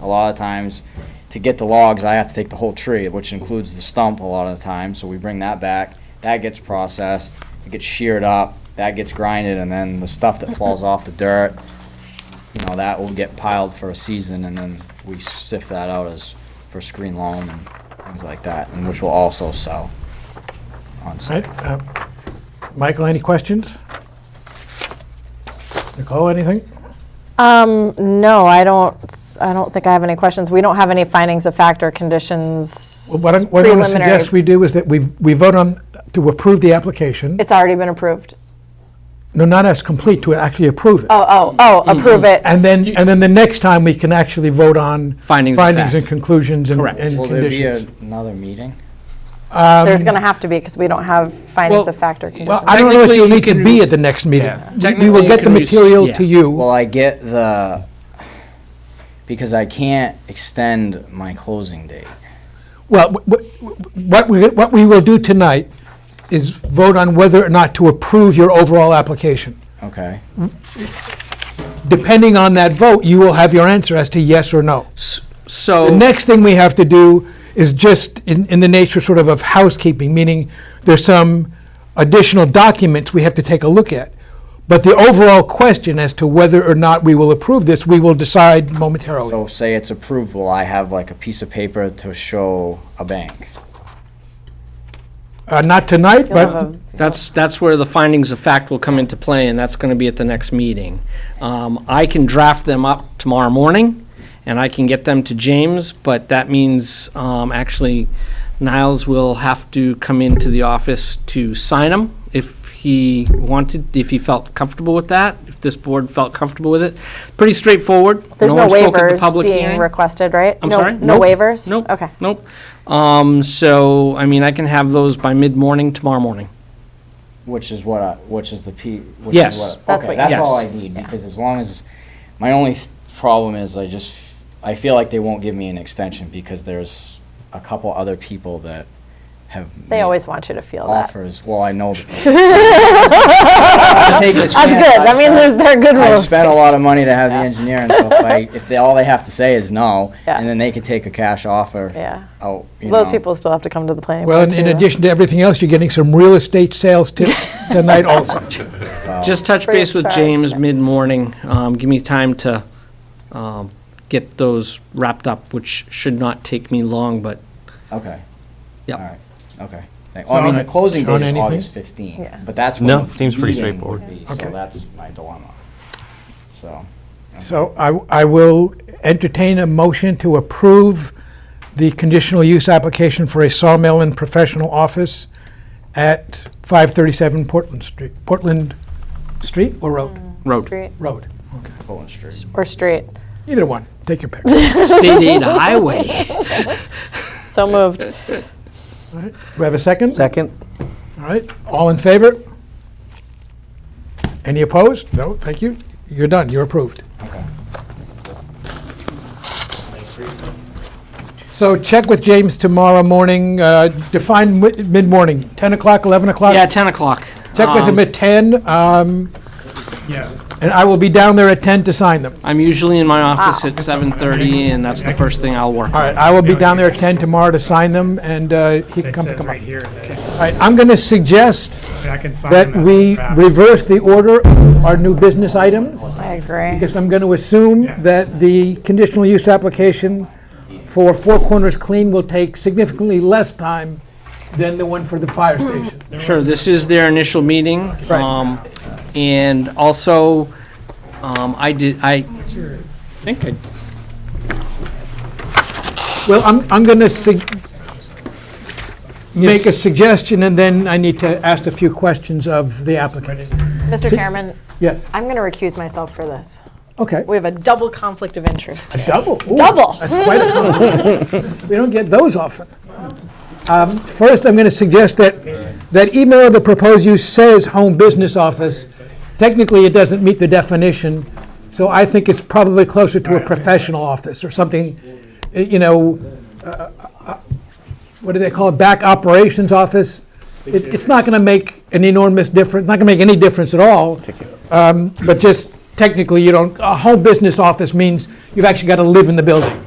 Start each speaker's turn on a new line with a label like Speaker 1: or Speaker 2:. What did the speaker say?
Speaker 1: A lot of times, to get the logs, I have to take the whole tree, which includes the stump a lot of the time, so we bring that back. That gets processed, it gets sheared up, that gets grinded, and then the stuff that falls off the dirt, you know, that will get piled for a season, and then we sift that out as, for screen loam and things like that, and which will also sell on
Speaker 2: All
Speaker 1: site.
Speaker 2: right, uh, Michael, any questions? Nicole, anything?
Speaker 3: Um, no, I don't, s- I don't think I have any questions. We don't have any findings of fact or conditions
Speaker 2: Well, What I'm- what I'm going to suggest
Speaker 3: preliminary.
Speaker 2: we do is that we, we vote on, to approve the application.
Speaker 3: It's already been approved.
Speaker 2: No, not as complete, to actually approve it.
Speaker 3: Oh, oh, oh,
Speaker 2: Mm-hmm.
Speaker 3: approve it.
Speaker 2: And then, and then the next time, we can actually vote on.
Speaker 4: Findings of
Speaker 2: Findings
Speaker 4: fact.
Speaker 2: and conclusions and
Speaker 4: Correct.
Speaker 2: and
Speaker 1: Will there be
Speaker 2: conditions.
Speaker 1: another meeting?
Speaker 3: There's going to have to be because we don't have findings
Speaker 4: Well,
Speaker 3: of fact or
Speaker 2: Um, Well,
Speaker 3: conditions.
Speaker 2: I don't know if
Speaker 4: Technically,
Speaker 2: you'll
Speaker 4: you
Speaker 2: need to
Speaker 4: can-
Speaker 2: be at the next meeting.
Speaker 4: Yeah.
Speaker 2: We- We
Speaker 4: Technically,
Speaker 2: will
Speaker 4: you
Speaker 2: get the
Speaker 4: can res-
Speaker 2: material
Speaker 4: yeah.
Speaker 2: to you.
Speaker 1: Will I get the, because I can't extend my closing date.
Speaker 2: Well, wh- wh- what we, what we will do tonight is vote on whether or not to approve your overall application.
Speaker 1: Okay.
Speaker 2: Depending on that vote, you will have your answer as to yes or no. The
Speaker 4: So,
Speaker 2: next thing we have to do is just in, in the nature sort of of housekeeping, meaning there's some additional documents we have to take a look at. But the overall question as to whether or not we will approve this, we will decide momentarily.
Speaker 1: So say it's approved, will I have like a piece of paper to show a bank?
Speaker 2: Uh, not tonight,
Speaker 3: You'll have
Speaker 2: but,
Speaker 3: a-
Speaker 4: that's, that's where the findings of fact will come into play, and that's going to be at the next meeting. Um, I can draft them up tomorrow morning, and I can get them to James, but that means, um, actually, Niles will have to come into the office to sign them if he wanted, if he felt comfortable with that, if this board felt comfortable with it. Pretty straightforward.
Speaker 3: There's no
Speaker 4: one spoke at the
Speaker 3: waivers
Speaker 4: public
Speaker 3: being
Speaker 4: hearing.
Speaker 3: requested, right?
Speaker 4: I'm
Speaker 3: No-
Speaker 4: sorry?
Speaker 3: No
Speaker 4: Nope.
Speaker 3: waivers?
Speaker 4: Nope.
Speaker 3: Okay.
Speaker 4: Nope. Um, so, I mean, I can have those by mid-morning tomorrow morning.
Speaker 1: Which is what I, which is the P, which
Speaker 4: Yes.
Speaker 1: is what.
Speaker 3: That's
Speaker 1: okay,
Speaker 3: what you
Speaker 1: That's
Speaker 4: need.
Speaker 1: all I need, because as long as, my only th- problem is I just, I feel like they won't give me an extension because there's a couple other people that have.
Speaker 3: They
Speaker 1: made
Speaker 3: always want you to feel that.
Speaker 1: Offers, well, I know. That's good,
Speaker 3: That's good. That means there's, they're good
Speaker 1: I've
Speaker 3: rules.
Speaker 1: spent a lot of money to have the engineer and so if I, if they, all they have to say is no,
Speaker 3: Yeah.
Speaker 1: and then they could take a cash offer.
Speaker 3: Yeah.
Speaker 1: Out, you
Speaker 3: Those
Speaker 1: know.
Speaker 3: people still have to come to the planning
Speaker 2: well,
Speaker 3: board
Speaker 2: in- in
Speaker 3: too.
Speaker 2: addition to everything else, you're getting some real estate sales tips tonight also.
Speaker 4: Just touch
Speaker 3: Free of
Speaker 4: base with
Speaker 3: charge.
Speaker 4: James mid-morning. Um, give me time to, um, get those wrapped up, which should not take me long, but,
Speaker 1: Okay. All
Speaker 4: yeah.
Speaker 1: right, okay. Thank- Well, I mean, the
Speaker 2: Sean,
Speaker 1: closing
Speaker 2: Sean,
Speaker 1: date is
Speaker 2: anything?
Speaker 1: August 15th,
Speaker 3: Yeah.
Speaker 1: but that's when.
Speaker 5: No,
Speaker 1: the
Speaker 5: seems pretty
Speaker 1: meeting would
Speaker 5: straightforward.
Speaker 1: be, So
Speaker 2: Okay.
Speaker 1: that's my dilemma. So,
Speaker 2: So I, I will entertain a motion to approve the conditional use application for a sawmill and professional office at 537 Portland Street, Portland Street or Road?
Speaker 4: Road.
Speaker 3: Street
Speaker 2: Road,
Speaker 1: Poland Street.
Speaker 3: Or street.
Speaker 2: either one, take your pick.
Speaker 4: State aid highway.
Speaker 3: So moved.
Speaker 2: We have a second?
Speaker 6: Second?
Speaker 2: All right, all in favor? Any opposed? No, thank you. You're done, you're approved. So check with James tomorrow morning, uh, define mi- mid-morning, 10 o'clock, 11 o'clock?
Speaker 4: Yeah, 10 o'clock.
Speaker 2: Check with
Speaker 4: Um,
Speaker 2: him at 10, um, and I will be down there at 10 to sign them.
Speaker 4: I'm usually in my
Speaker 3: Ah.
Speaker 4: office at 7:30, and that's the first thing I'll work on.
Speaker 2: All right, I will be down there at 10 tomorrow to sign them, and uh, he can
Speaker 7: It
Speaker 2: come
Speaker 7: says
Speaker 2: pick them up.
Speaker 7: right here that
Speaker 2: All right, I'm going to suggest
Speaker 7: I can sign
Speaker 2: that
Speaker 7: them as
Speaker 2: we
Speaker 7: draft.
Speaker 2: reverse the order of our new business items.
Speaker 3: I agree.
Speaker 2: Because I'm going to assume
Speaker 7: Yeah.
Speaker 2: that the conditional use application for Four Corners Clean will take significantly less time than the one for the fire station.
Speaker 4: Sure, this is their initial meeting.
Speaker 2: Right.
Speaker 4: um, And also, um, I did, I think I
Speaker 2: Well, I'm, I'm going to make a suggestion, and then I need to ask a few questions of the applicant.
Speaker 3: Mr. Chairman,
Speaker 2: Yes,
Speaker 3: I'm going to recuse myself for this.
Speaker 2: okay.
Speaker 3: We have a double conflict of interest.
Speaker 2: Double. ooh,
Speaker 3: Double.
Speaker 2: That's quite a compliment. We don't get those often. Um, First, I'm going to suggest that, that even though the proposed use says home business office, technically it doesn't meet the definition, so I think it's probably closer to a professional office or something, uh, you know, uh, uh, what do they call it, back operations office? It- It's not going to make an enormous difference, not going to make any difference at all. Um, But just technically, you don't, a home business office means you've actually got to live in the building.